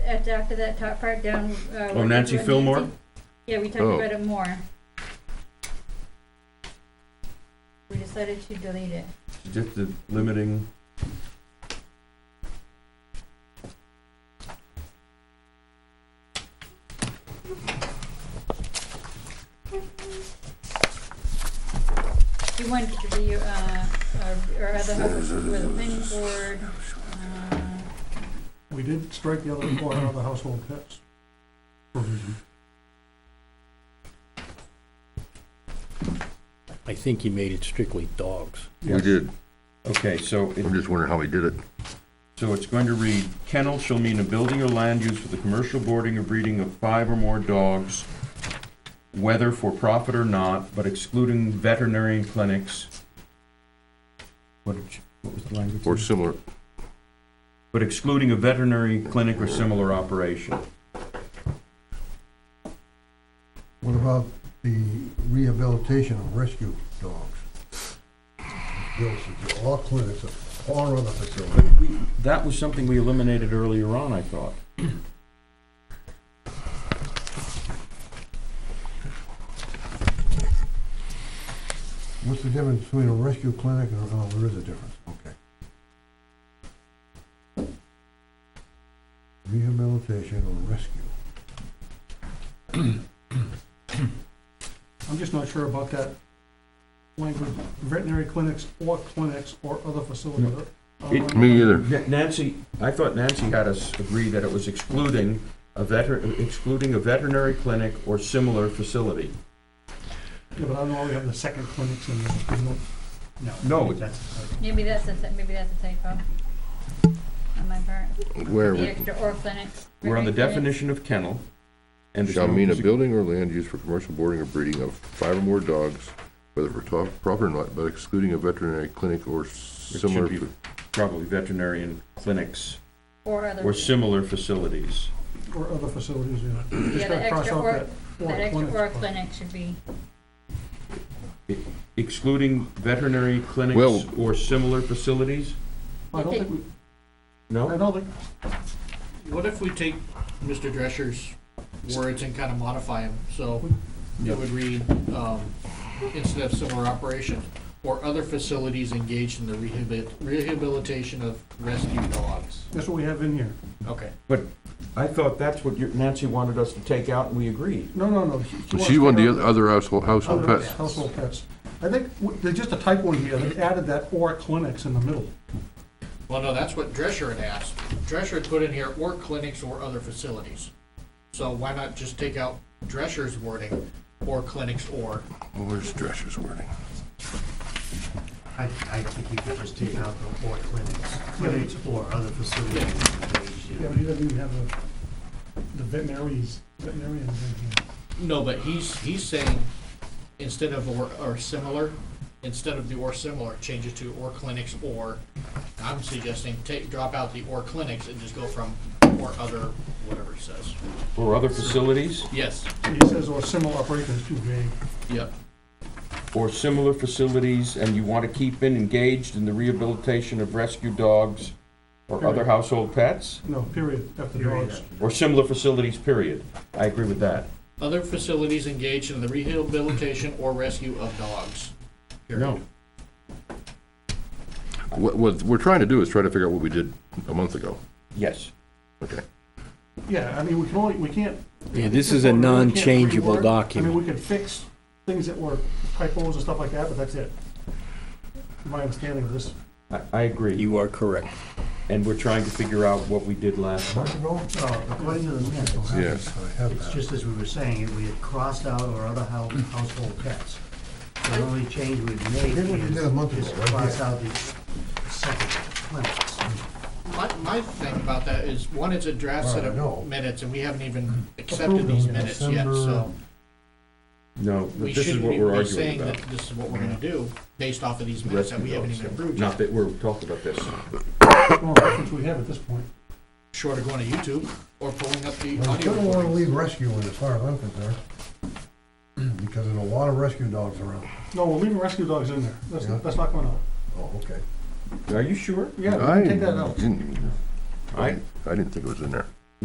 that's after that top part down. uh, Oh, Nancy where- Fillmore? Yeah, we talked Oh. about it more. We decided to delete it. Just the limiting. You want it to be, uh, uh, or other, for the planning board, uh, We did strike the other four out of the household pets. I think he made it strictly dogs. Yes. did. Okay, so it, I'm just wondering how we did it. so it's going to read, kennel shall mean a building or land used for the commercial boarding or breeding of five or more dogs, whether for profit or not, but excluding veterinary clinics. What, did you- what was the language? Or similar, But excluding a veterinary clinic or similar operation. What about the rehabilitation of rescue dogs? Bill said, All clinics or other facility. But we, that was something we eliminated earlier on, I thought. What's the difference between a rescue clinic and, oh, there is a difference, okay. Rehabilitation or rescue. I'm just not sure about that language, veterinary clinics or clinics or other Uh, um, facility. It- me either. Na- Nancy, I thought Nancy had us agree that it was excluding a veter, excluding a veterinary clinic or similar facility. Yeah, but I don't know, we have the second clinics in there, there's no, no. No. That's, maybe that's a, maybe that's a typo on my part. Where The we- extra or clinics. We're on the Veterinary clinics. definition of kennel. and there's shall no mean a music- building or land used for commercial boarding or breeding of five or more dogs, whether for top, proper or not, but excluding a veterinary clinic or It similar. should be probably veterinarian clinics Or other. or similar facilities. or other facilities, yeah. Yeah, Just gotta the cross extra out or, that that extra clinics or part. clinic should be, Excluding veterinary clinics Well- or similar facilities? I don't think, we. I No? don't think, What if we take Mr. Drescher's words and kind of modify them? So Yeah. it would read, um, instead of similar operation, or other facilities engaged in the rehabil- rehabilitation of rescue dogs. that's what we have in here. Okay. But I thought that's what your- Nancy wanted us to take out and we agreed. No, no, no. But she wanted the oth- other household, household Other pets. Household pets. I think, w- there's just a typo in here, they added that or clinics in the middle. Well, no, that's what Drescher had asked. Drescher had put in here, or clinics or other facilities. So why not just take out Drescher's wording, or clinics or? Well, Where's Drescher's wording? I, I think you could just take out the or clinics, clinics or other facilities. Yeah, but he doesn't even have the, the veterinaries, veterinarians in here. No, but he's, he's saying, instead of or, or similar, instead of the or similar, change it to or clinics or. I'm suggesting take, drop out the or clinics and just go from or other, whatever it says. Or other facilities? Yes, So He says, or similar operation is too vague. yep, or similar facilities, and you want to keep in engaged in the rehabilitation of rescue dogs or other household pets, No, period, after Period. dogs. or similar facilities, period. I agree with that. other facilities engaged in the rehabilitation or rescue of dogs. period. No. What, what we're trying to do is try to figure out what we did a month ago. Yes. Okay. Yeah, I mean, we can only, we can't. Yeah, this is a we can't non-changeable reword. I document. mean, we could fix things that were typos and stuff like that, but that's it. My understanding of this. I, I agree, You are correct. and we're trying to figure out what we did last time. No, according to Oh, the minutes, Yes. I have it's that. just as we were saying, we had crossed out or other hou- household pets. The only change we've made Here's what you did a month is, is ago, right cross here. out the second clinics. My, my thing about that is, one, it's a draft set Alright, no. of minutes, and we haven't even accepted these minutes yet, so. No, We this is shouldn't what be we're be arguing saying about. that this is what we're gonna do, based off of these minutes that Rescue we haven't dogs. even approved yet. Not that we're talking about this. No reference we have at this point. short of going to YouTube or pulling up the Well, I audio still don't wanna recordings. leave rescue in as far as I'm concerned, because there's a lot of rescue dogs around. No, we're leaving rescue dogs in there. That's, Yeah. that's not going out. Oh, okay. Are you sure? Yeah, we I can take that out. didn't, I, I, I didn't think it was in there.